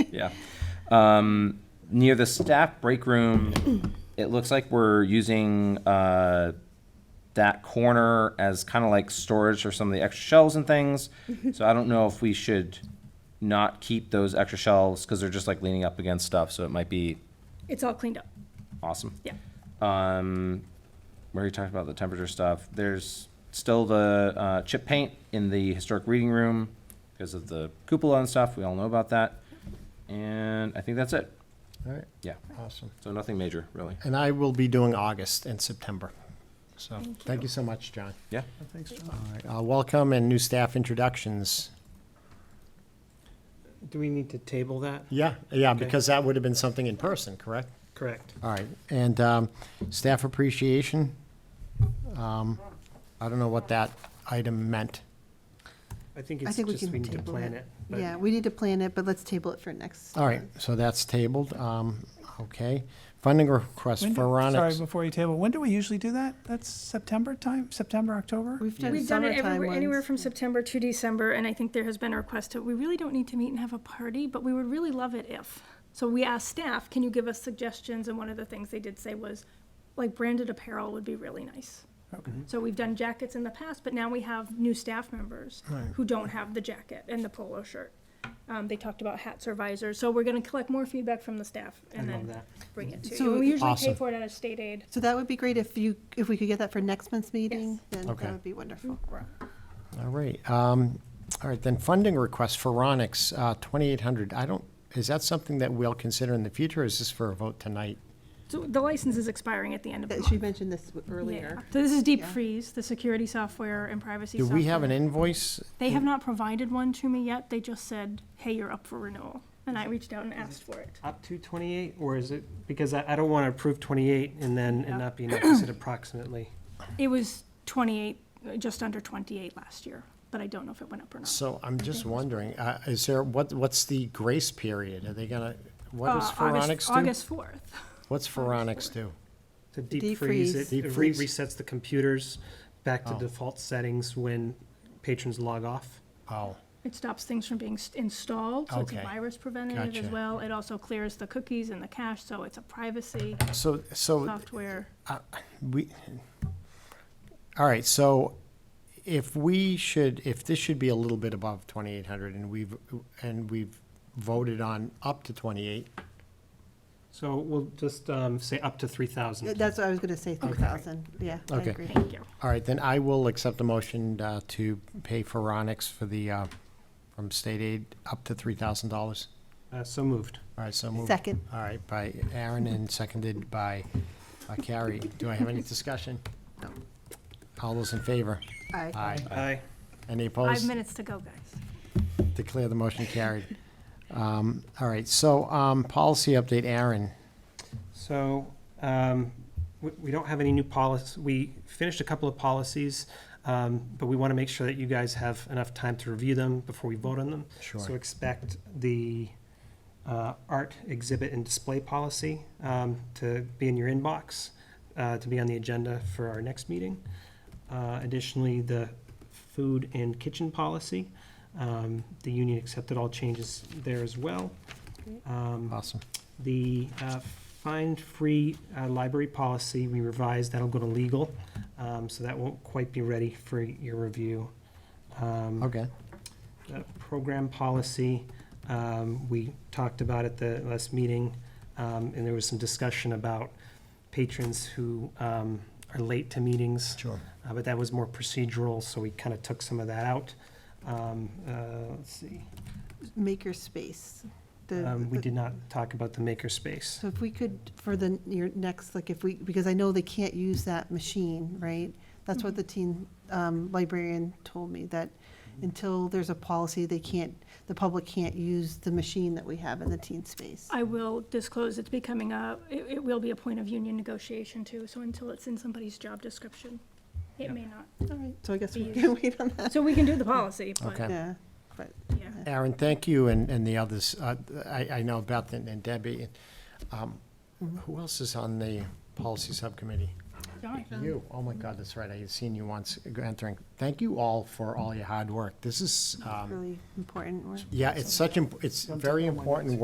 yeah. Um, near the staff break room, it looks like we're using uh, that corner as kind of like storage for some of the extra shelves and things. So I don't know if we should not keep those extra shelves because they're just like leaning up against stuff. So it might be It's all cleaned up, awesome. yeah. Um, we already talked about the temperature stuff. There's still the uh, chip paint in the historic reading room because of the cupola and stuff. We all know about that. And I think that's it. All right, Yeah. awesome. So nothing major, really. And I will be doing August and September. So, thank you so much, John. Yeah. Thanks, John. All right, uh, welcome and new staff introductions. Do we need to table that? Yeah, yeah, because that would have been something in person, correct? Correct. All right, and um, staff appreciation. Um, I don't know what that item meant. I think I it's think we just can we need to table plan it. it. but- Yeah, we need to plan it, but let's table it for next. All right, so that's tabled. Um, Okay. Funding request When do- for Sorry, Ronix. before you table, when do we usually do that? That's September time, September, October? We've done We've done it summertime everywhere, anywhere ones. from September to December, and I think there has been a request that we really don't need to meet and have a party, but we would really love it if. So we asked staff, can you give us suggestions? And one of the things they did say was, like, branded apparel would be really nice. Mm-hmm. So we've done jackets in the past, but now we have new staff members who don't have the jacket and the polo shirt. Um, they talked about hats or visors, so we're gonna collect more feedback from the staff and I love then that. bring it to So you. And We usually pay Awesome. for it out of state aid. So that would be great if you, if we could get that for next month's meeting, Yes. Mm-hmm. then Okay. that would be wonderful. All right, um, all right, then funding request for Ronix, uh, 2,800. I don't, is that something that we'll consider in the future? or Is this for a vote tonight? So the license is expiring at the end of the That month. She mentioned this w- Yeah. earlier. So this is Deep Yeah. Freeze, the security software and privacy Do software. we have an invoice? They have not provided one to me yet. They just said, hey, you're up for renewal. And I reached out and asked for it. Up to twenty-eight, or is it, because I, I don't want to approve twenty-eight and then it not be enough, is it approximately? It was 28, uh, just under 28 last year, but I don't know if it went up or not. So I'm just wondering, uh, is there, what, what's the grace period? Are they gonna, what does Uh, August- Pharonics do? August 4th. What's Pharonics do? To deep freeze, it Deep it re- freeze. resets the computers back to Oh. default settings when patrons log off. Oh, It stops things from being s- installed, so it's a Okay. virus preventative as Gotcha. well. It also clears the cookies and the cache, so it's a privacy so, so software. we, all right, so if we should, if this should be a little bit above 2,800 and we've, and we've voted on up to 28, So we'll just um, say up to three thousand. That's what I was gonna say, three thousand, yeah, I Okay. agree. Thank you. all right, then I will accept a motion uh, to pay Pharonics for the, uh, from state aid up to $3,000. All Uh, So moved. right, so moved. Second. All right, by Aaron and seconded by uh, Carrie. Do I have any discussion? No. All those in favor? Aye. Aye. Aye. Any Five opposed? minutes to go, guys. Declare the motion carried. Um, All right, so um, policy update, Aaron. So, um, we, we don't have any new policies. We finished a couple of policies, um, but we want to make sure that you guys have enough time to review them before we vote on them. So Sure. expect the, uh, art exhibit and display policy, um, to be in your inbox, uh, to be on the agenda for our next meeting. Uh, additionally, the food and kitchen policy, um, the union accepted all changes there as well. Um, Awesome. the uh, fine-free uh, library policy, we revised, that'll go to legal, um, so that won't quite be ready for your review. Um, Okay. the Program policy, um, we talked about at the last meeting, um, and there was some discussion about patrons who um, are late to meetings. Sure. Uh, but that was more procedural, so we kind of took some of that out. Um, uh, Let's see, Maker space. The- Um, we the- did not talk about the makerspace. So if we could, for the, your next, like if we, because I know they can't use that machine, right? That's what the teen um, librarian told me, that until there's a policy, they can't, the public can't use the machine that we have in the teen space. I will disclose it's becoming a, it, it will be a point of union negotiation too, so until it's in somebody's job description, it may not. All right, so I guess we can wait on that, So we can do the policy, but, Okay. yeah, but. yeah. Aaron, thank you and, and the others. Uh, I, I know Beth and and Debbie. Um, Who else is on the policy subcommittee? You. Oh my God, that's right. I had seen you once entering. Thank you all for all your hard work. This is, um, really important work. yeah, it's such, imp- it's very important